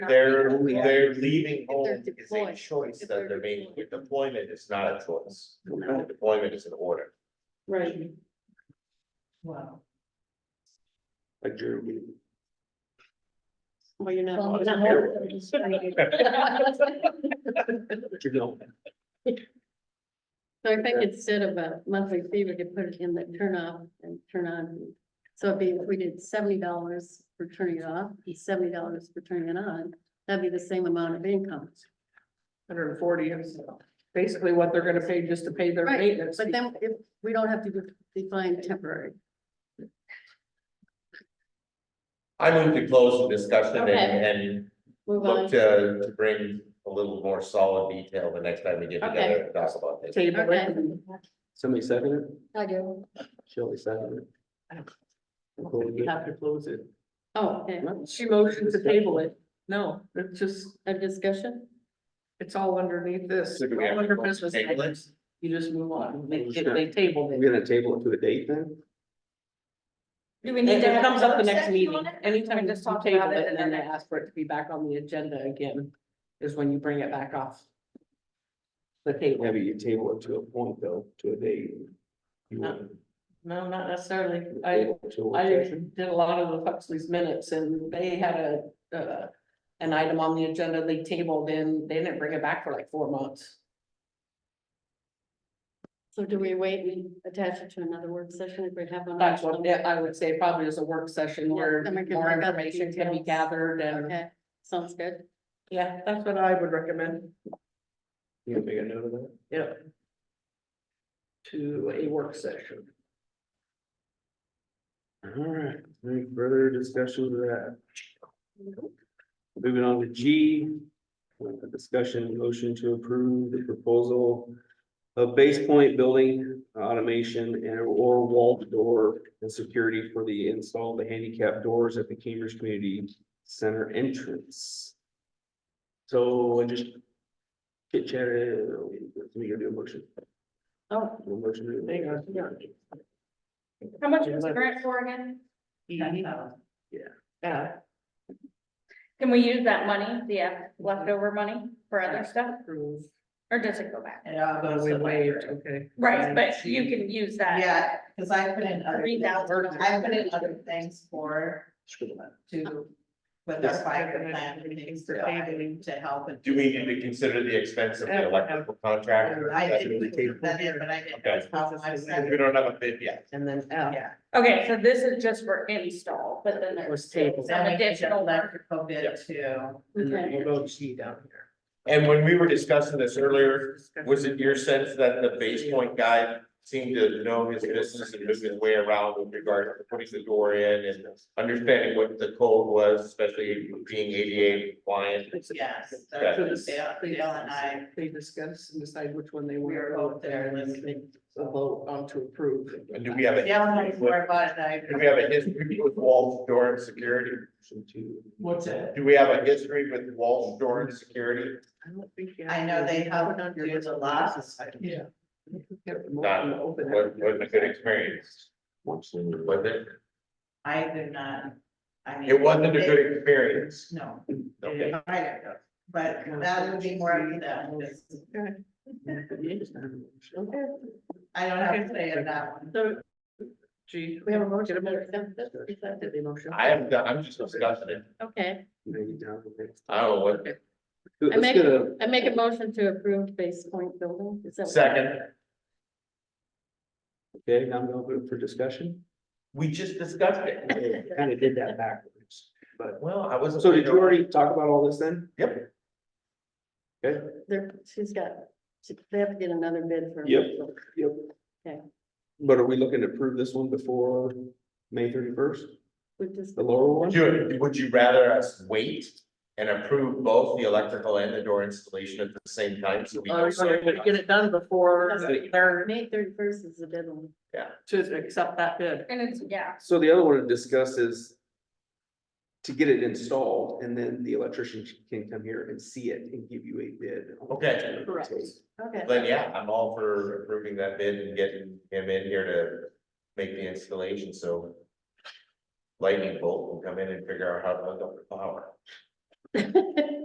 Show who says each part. Speaker 1: They're,
Speaker 2: We have-
Speaker 1: they're leaving
Speaker 3: they're
Speaker 1: home is a
Speaker 3: deployed,
Speaker 1: choice
Speaker 3: if
Speaker 1: that
Speaker 3: they're
Speaker 1: they're making,
Speaker 3: deployed.
Speaker 1: deployment is not a choice,
Speaker 2: No.
Speaker 1: deployment is an order.
Speaker 3: Right.
Speaker 2: Wow.
Speaker 3: Well, you're
Speaker 2: Well,
Speaker 3: not.
Speaker 2: it's
Speaker 3: not
Speaker 2: not
Speaker 3: hurt. So I think instead of a monthly fee, we could put it in the turn off and turn on. So it'd be, if we did seventy dollars for turning it off, and seventy dollars for turning it on, that'd be the same amount of income.
Speaker 4: Hundred and forty is basically what they're gonna pay just to pay their
Speaker 3: Right,
Speaker 4: maintenance.
Speaker 3: But then if, we don't have to de- define temporary.
Speaker 1: I move to close the discussion and,
Speaker 3: Okay.
Speaker 1: and
Speaker 3: Move
Speaker 1: look
Speaker 3: on.
Speaker 1: to, to bring a little more solid detail the next time we get together to talk about this.
Speaker 4: Table
Speaker 3: Okay.
Speaker 4: it.
Speaker 5: Somebody second it,
Speaker 3: I do.
Speaker 5: Shelley second
Speaker 4: You have to close it.
Speaker 3: Oh, okay,
Speaker 4: She motioned to table it. No, it's just,
Speaker 3: a discussion?
Speaker 4: it's all underneath this.
Speaker 1: So do we have
Speaker 4: All
Speaker 1: to
Speaker 4: under
Speaker 1: vote to
Speaker 4: business.
Speaker 1: table it?
Speaker 4: You just move on. They,
Speaker 5: Who's
Speaker 4: they tabled
Speaker 5: it.
Speaker 4: it.
Speaker 5: We're gonna table it to a date then?
Speaker 4: Do we need to? It comes up the next meeting. Anytime you
Speaker 6: just talk
Speaker 4: table
Speaker 6: about it
Speaker 4: it and
Speaker 6: and
Speaker 4: then they
Speaker 6: then-
Speaker 4: ask for it to be back on the agenda again, is when you bring it back off. The
Speaker 5: Yeah,
Speaker 4: table.
Speaker 5: but you table it to a point though, to a date. You
Speaker 4: No.
Speaker 5: want
Speaker 4: No, not necessarily.
Speaker 5: to
Speaker 4: Uh, I,
Speaker 5: table it to a
Speaker 4: I
Speaker 5: location?
Speaker 4: did a lot of the Huxley's minutes and they had a, uh, an item on the agenda they tabled in, they didn't bring it back for like four months.
Speaker 3: So do we wait and attach it to another work session if we have one?
Speaker 4: That's what, yeah, I would say probably as a work session where
Speaker 3: Yeah, then we can
Speaker 4: more
Speaker 3: work out the
Speaker 4: information can be
Speaker 3: details.
Speaker 4: gathered and,
Speaker 3: Okay, sounds good.
Speaker 4: yeah, that's what I would recommend,
Speaker 5: You gonna make a note of that?
Speaker 4: yeah. To a work session.
Speaker 5: Alright, any further discussion of that? Moving on to G. uh, Discussion and motion to approve the proposal. Of base point building automation and or wall door and security for the install of the handicap doors at the Cambridge Community Center entrance. So I just. uh, Chit chatted, we gonna do a motion,
Speaker 3: Oh,
Speaker 5: a motion. to-
Speaker 6: How much was the grant for again?
Speaker 4: E, Yeah,
Speaker 6: Can we use that money, the uh, leftover money for other stuff,
Speaker 4: approve.
Speaker 6: or does it go back?
Speaker 2: Yeah,
Speaker 4: Uh,
Speaker 2: those
Speaker 4: we
Speaker 2: are
Speaker 4: waived,
Speaker 2: waived.
Speaker 4: okay.
Speaker 6: Right, but you can use that.
Speaker 2: Yeah, cause I put in other,
Speaker 6: Three
Speaker 2: things.
Speaker 6: thousand.
Speaker 2: I put in other things for, to, with our
Speaker 4: Yes.
Speaker 2: fire plan, and things to, buy, to help. and-
Speaker 1: Do we need to consider the expense of the electrical contract?
Speaker 2: I
Speaker 1: Because
Speaker 2: didn't put that in, but I
Speaker 1: Okay.
Speaker 2: didn't. I said-
Speaker 1: We don't have a bid yet.
Speaker 4: And then F.
Speaker 2: Yeah.
Speaker 6: Okay, so this is just for install, but then there's.
Speaker 4: Was tabled.
Speaker 2: Then we did
Speaker 6: Additional work.
Speaker 2: electrical bid too.
Speaker 4: And then
Speaker 3: Okay.
Speaker 4: we'll go to G down here.
Speaker 1: And when we were discussing this earlier, Was it your sense that the base point guy seemed to know his business and move his way around with regard to putting the door in and understanding what the code was, especially being ADA compliant?
Speaker 2: Yes.
Speaker 1: Okay.
Speaker 4: So
Speaker 2: Dale
Speaker 4: this-
Speaker 2: Dale and I,
Speaker 4: They discuss and decide which one they
Speaker 2: we
Speaker 4: want
Speaker 2: were
Speaker 4: to
Speaker 2: both
Speaker 4: vote
Speaker 2: there
Speaker 4: there and then
Speaker 2: listening.
Speaker 4: a vote on to approve.
Speaker 1: And do we have a,
Speaker 2: Dale and I
Speaker 1: history with-
Speaker 2: were about it, I.
Speaker 1: do we have a history with Walls Door and Security?
Speaker 2: What's it?
Speaker 1: Do we have a history with Walls Door and Security?
Speaker 4: I don't think you
Speaker 2: I know they
Speaker 4: to
Speaker 2: helped
Speaker 4: put on your
Speaker 2: do the
Speaker 4: list of
Speaker 2: lots.
Speaker 4: business items.
Speaker 2: Yeah.
Speaker 4: You could get them
Speaker 1: Not-
Speaker 4: all to open it.
Speaker 1: Wasn't wasn't a good experience,
Speaker 5: Once.
Speaker 1: was it?
Speaker 2: I did not, I mean.
Speaker 1: It wasn't a
Speaker 2: they-
Speaker 1: good experience.
Speaker 2: No,
Speaker 1: Okay.
Speaker 2: I don't know, but that would be more of the,
Speaker 4: Okay.
Speaker 2: I don't have to say it that one.
Speaker 4: So, gee.
Speaker 3: we have a motion.
Speaker 4: Get a
Speaker 3: to
Speaker 4: motion.
Speaker 3: accept this? Is that it?
Speaker 4: Did they motion?
Speaker 1: I haven't, done- I'm just discussing it.
Speaker 3: Okay,
Speaker 5: Maybe down the next.
Speaker 1: I don't know what,
Speaker 3: I
Speaker 5: Let's
Speaker 3: make-
Speaker 5: get a,
Speaker 3: I make a motion to approve base point building. Is that what-
Speaker 1: second,
Speaker 5: okay, now I'm gonna open it for discussion.
Speaker 1: we just discussed it.
Speaker 5: Kind of did that backwards, but,
Speaker 1: Well, I wasn't.
Speaker 5: so did you already talk about all this then?
Speaker 1: Yep.
Speaker 5: Okay,
Speaker 3: They're, she's got, she- they have to get another bid for.
Speaker 5: Yep. yep.
Speaker 3: Okay.
Speaker 5: But are we looking to approve this one before May thirty-first,
Speaker 3: We just,
Speaker 5: the lower one?
Speaker 1: Would, would you rather us wait and approve both the electrical and the door installation at the same time? so we know
Speaker 4: Oh, so you're gonna get
Speaker 1: something?
Speaker 4: it done before they're
Speaker 3: May thirty first is the deadline.
Speaker 4: to accept that bid.
Speaker 6: And it's, yeah,
Speaker 5: So the other one to discuss is to get it installed and then the electrician can come here and see it and give you a bid.
Speaker 1: Okay.
Speaker 3: Correct. Okay.
Speaker 1: Then, yeah, I'm all for approving that bid and getting him in here to make the installation, so. Lightning bolt will come in and figure out how to hook up the power.
Speaker 3: it.